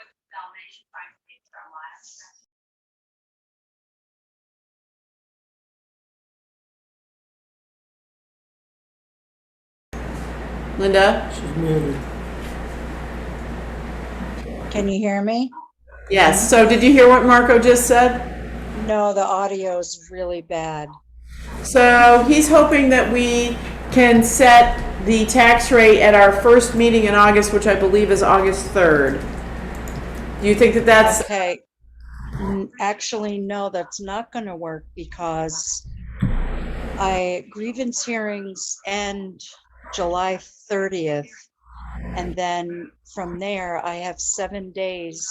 you should find the page from last. Linda? She's muted. Can you hear me? Yes. So did you hear what Marco just said? No, the audio is really bad. So he's hoping that we can set the tax rate at our first meeting in August, which I believe is August 3rd. Do you think that that's, Okay. N- Actually, no, that's not going to work because I grievance hearings end July 30th. And then from there, I have seven days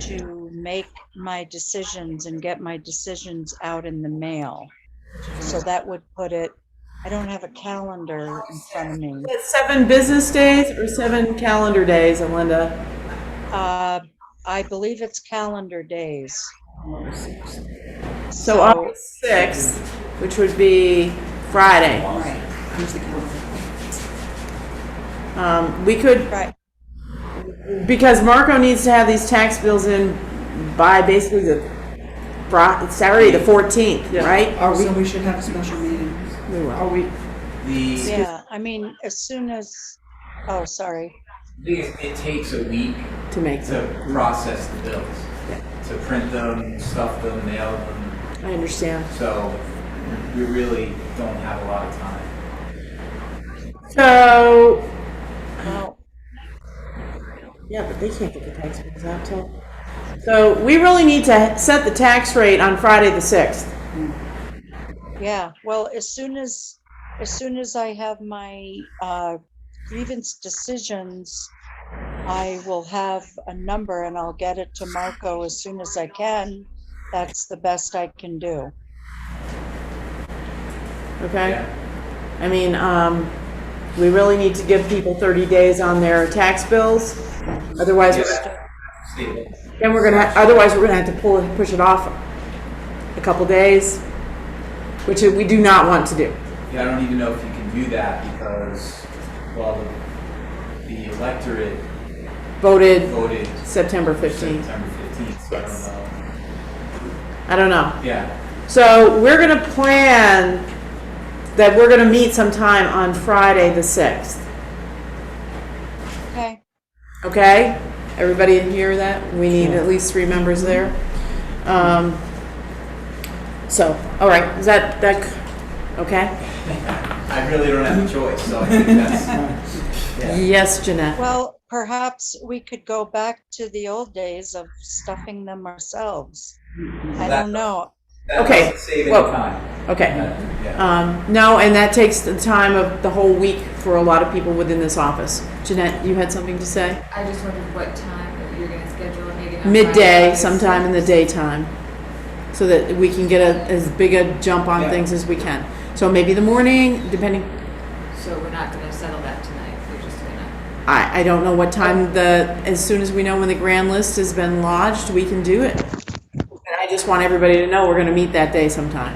to make my decisions and get my decisions out in the mail. So that would put it, I don't have a calendar in front of me. that's seven business days or seven calendar days, Linda? Uh, I believe it's calendar days. So August 6th, which would be Friday. Um, we could, Right, Because Marco needs to have these tax bills in by basically the Fri- Saturday, the fourteenth, right? Are we? So we should have a special meeting. Are we? The, yeah, I mean, as soon as, oh, sorry, the it takes a week To make them, to process the bills, to print them, stuff them, mail them. I understand. So we really don't have a lot of time. So, no, yeah, but they can't get the tax bills out till. So we really need to set the tax rate on Friday the sixth. yeah, well, as soon as, as soon as I have my, uh, grievance decisions, I will have a number and I'll get it to Marco as soon as I can. That's the best I can do. Okay. Yeah. I mean, um, we really need to give people thirty days on their tax bills. Otherwise, we're gonna- Stable. then we're gonna. Otherwise, we're gonna have to pull push it off a couple days, which we do not want to do. Yeah, I don't even know if you can do that because, well, the electorate voted voted September 15th. September fifteenth, so I don't I don't know. know. Yeah, So we're going to plan that we're going to meet sometime on Friday, the 6th. Okay, Okay? Everybody in here that? We need at least three members there. Um, so, all right, is that, that, c- okay? I really don't have a choice, so I think that's, yeah. Yes, Jeanette. well, perhaps we could go back to the old days of stuffing them ourselves. I That- don't know. That Okay, doesn't save any well- time. Okay. Yeah. Um, no, and that takes the time of the whole week for a lot of people within this office. Jeanette, you had something to say? I just wondered what time that you're gonna schedule a meeting on Friday. midday sometime in the daytime so that we can get a, as big a jump on Yeah. things as we can so maybe the morning depending So we're not gonna settle that tonight, we're just gonna, I, I don't know what time the as soon as we know when the grand list has been lodged we can do it and i just want everybody to know we're going to meet that day sometime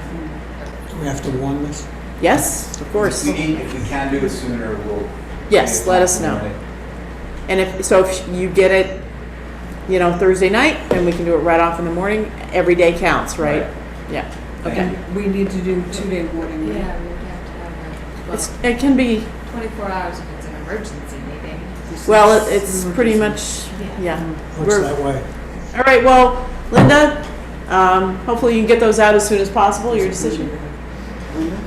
Do we have to warn this? yes of course We need, if we can do it sooner, we'll. Yes, let us know. and if so if you get it you know thursday night then we can do it right off in the morning every day counts right, Right. yeah okay And we need to do two-day warning. right? yeah, we would have to have a, it's, well, it can be twenty-four hours if it's an emergency meeting. Well, it- it's pretty much, yeah. Looks We're- that way. All right, well, Linda, um, hopefully you can get those out as soon as possible, your decision.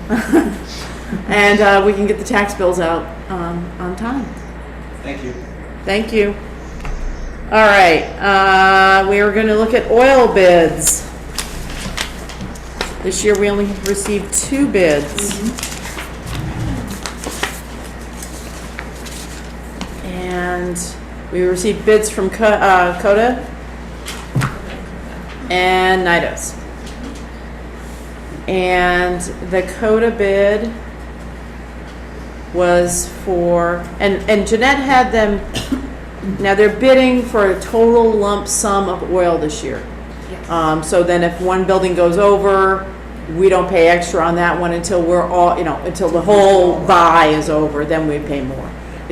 And, uh, we can get the tax bills out, um, on time. Thank you. Thank you. All right, uh, we are gonna look at oil bids. This year, we only received two bids. And we received bids from Co- uh, Coda and Nidos. And the Coda bid was for, and, and Jeanette had them, now they're bidding for a total lump sum of oil this year. Um, so then if one building goes over, we don't pay extra on that one until we're all, you know, until the whole buy is over, then we pay more.